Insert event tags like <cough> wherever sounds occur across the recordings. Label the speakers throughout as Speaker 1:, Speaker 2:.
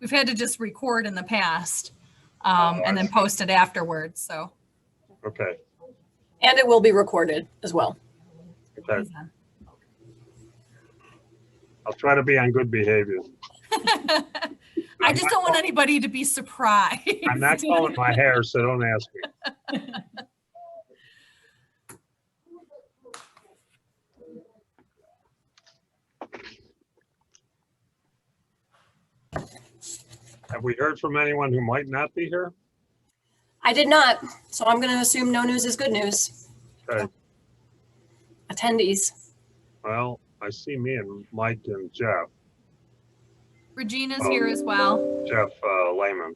Speaker 1: we've had to just record in the past
Speaker 2: Oh,
Speaker 1: um, and then post it afterwards, so.
Speaker 3: Okay,
Speaker 4: And it will be recorded as well.
Speaker 3: okay. I'll try to be on good behavior.
Speaker 1: <laughs> I just don't want anybody to be surprised.
Speaker 3: I'm not calling my hair, so don't ask me. <laughs> Have we heard from anyone who might not be here?
Speaker 4: I did not, so I'm going to assume no news is good news.
Speaker 3: Okay,
Speaker 4: Attendees,
Speaker 3: well, I see me and Mike and Jeff,
Speaker 1: <laughs> Regina's here as well.
Speaker 3: Jeff uh, Lehman.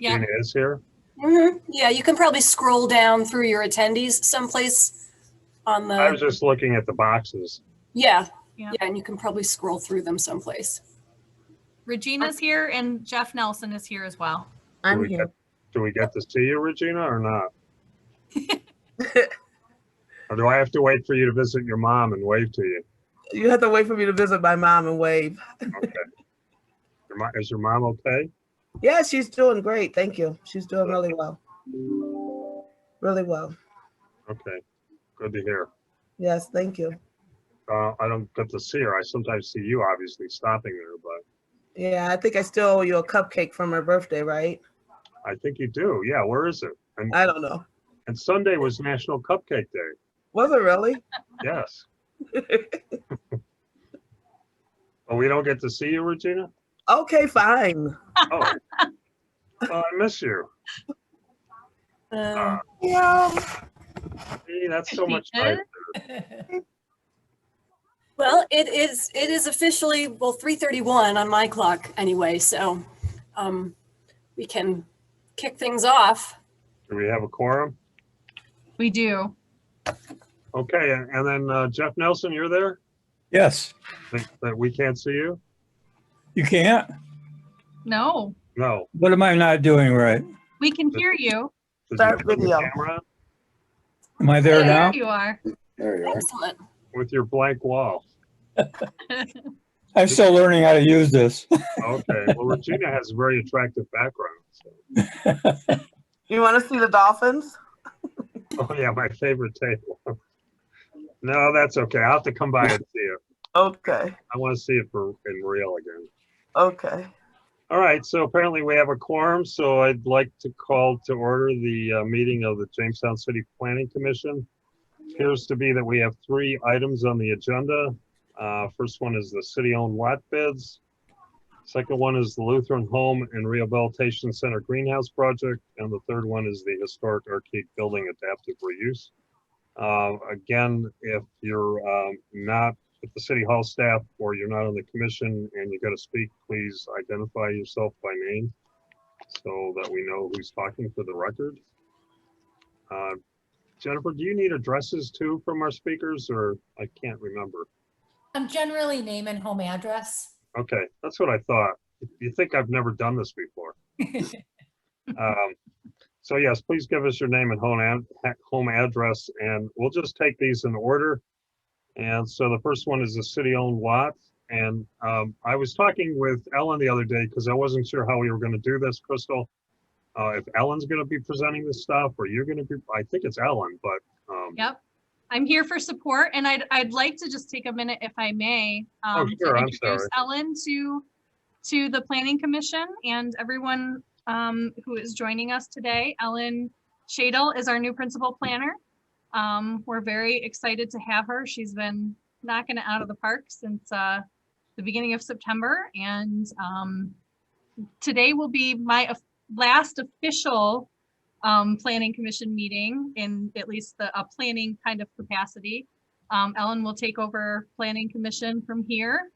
Speaker 1: Yeah.
Speaker 3: Regina is here?
Speaker 4: Mhm. yeah, you can probably scroll down through your attendees someplace on
Speaker 1: Uh,
Speaker 3: I was
Speaker 4: the,
Speaker 3: just looking at the boxes.
Speaker 4: yeah,
Speaker 1: Yeah.
Speaker 4: yeah, and you can probably scroll through them someplace.
Speaker 1: Regina's here and Jeff Nelson is here as well.
Speaker 3: Do
Speaker 5: I'm
Speaker 3: we
Speaker 5: here.
Speaker 3: get- Do we get to see you, Regina, or not? Or do I have to wait for you to visit your mom and wave to you?
Speaker 5: You have to wait for me to visit my mom and wave.
Speaker 3: Okay. Your mo- Is your mom okay?
Speaker 5: Yeah, she's doing great. Thank you. She's doing really well. Really well.
Speaker 3: Okay, good to hear.
Speaker 5: Yes, thank you.
Speaker 3: Uh, I don't get to see her. I sometimes see you obviously stopping there, but
Speaker 5: Yeah, I think I still owe you a cupcake from her birthday, right?
Speaker 3: I think you do. Yeah, where is it? And,
Speaker 5: I don't know.
Speaker 3: and Sunday was National Cupcake Day.
Speaker 5: Was it really?
Speaker 3: Yes. Oh, we don't get to see you, Regina?
Speaker 5: okay, fine.
Speaker 3: Oh. Well, I miss you.
Speaker 6: Uh.
Speaker 4: Um,
Speaker 5: Yeah.
Speaker 3: Gee, that's so
Speaker 1: She
Speaker 3: much nicer.
Speaker 1: is?
Speaker 4: Well, it is, it is officially, well, 3:31 on my clock anyway, so um, we can kick things off.
Speaker 3: Do we have a quorum?
Speaker 1: We do.
Speaker 3: Okay, and and then uh, Jeff Nelson, you're there?
Speaker 2: Yes,
Speaker 3: That- That we can't see you?
Speaker 2: you can't.
Speaker 1: No,
Speaker 3: No.
Speaker 2: What am I not doing right?
Speaker 1: we can hear you.
Speaker 3: Did you
Speaker 5: Start
Speaker 3: turn your
Speaker 5: video.
Speaker 3: camera on?
Speaker 2: Am I there
Speaker 1: There
Speaker 2: now?
Speaker 1: you are.
Speaker 6: There you are.
Speaker 4: Excellent.
Speaker 3: With your blank wall.
Speaker 2: I'm still learning how to use this.
Speaker 3: Okay, well, Regina has a very attractive background. so-
Speaker 5: You want to see the dolphins?
Speaker 3: Oh, yeah, my favorite table. <laughs> No, that's okay. I'll have to come by and see it.
Speaker 5: Okay.
Speaker 3: I want to see it for, in real again.
Speaker 5: Okay.
Speaker 3: All right, so apparently we have a quorum, so I'd like to call to order the uh, meeting of the Jamestown City Planning Commission. Appears to be that we have three items on the agenda. Uh, First one is the city-owned lot bids. Second one is the Lutheran Home and Rehabilitation Center Greenhouse Project. And the third one is the Historic Arcade Building Adaptive Reuse. Uh, Again, if you're um, not with the city hall staff or you're not on the commission and you got to speak, please identify yourself by name so that we know who's talking for the record. Uh, Jennifer, do you need addresses too from our speakers or I can't remember?
Speaker 7: Um, generally name and home address.
Speaker 3: Okay, that's what I thought. You think I've never done this before? Um, So yes, please give us your name and home, ad- home address, and we'll just take these in order. And so the first one is a city-owned lot, and um, I was talking with Ellen the other day because I wasn't sure how we were going to do this, Crystal. Uh, If Ellen's going to be presenting this stuff, or you're going to be, I think it's Ellen, but um,
Speaker 1: Yep. I'm here for support and I'd, I'd like to just take a minute if I may. um, to
Speaker 3: Oh, sure, I'm
Speaker 1: introduce
Speaker 3: sorry.
Speaker 1: Ellen to, to the planning commission and everyone um, who is joining us today. Ellen Shadle is our new principal planner. Um, We're very excited to have her. She's been knocking it out of the park since uh, the beginning of September. And um, today will be my of- last official um, planning commission meeting in at least the, a planning kind of capacity. Um, Ellen will take over planning commission from here.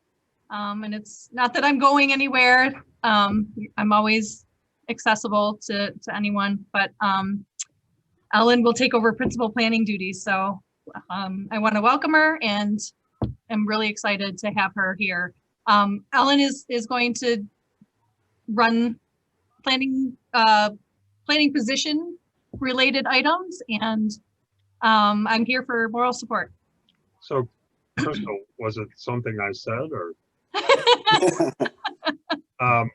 Speaker 1: Um, and it's not that I'm going anywhere. Um, I'm always accessible to, to anyone, but, um, Ellen will take over principal planning duties. So, um, I want to welcome her and I'm really excited to have her here. Um, Ellen is, is going to run planning, uh, planning position related items and, um, I'm here for moral support.
Speaker 3: So Crystal, was it something I said or? Um,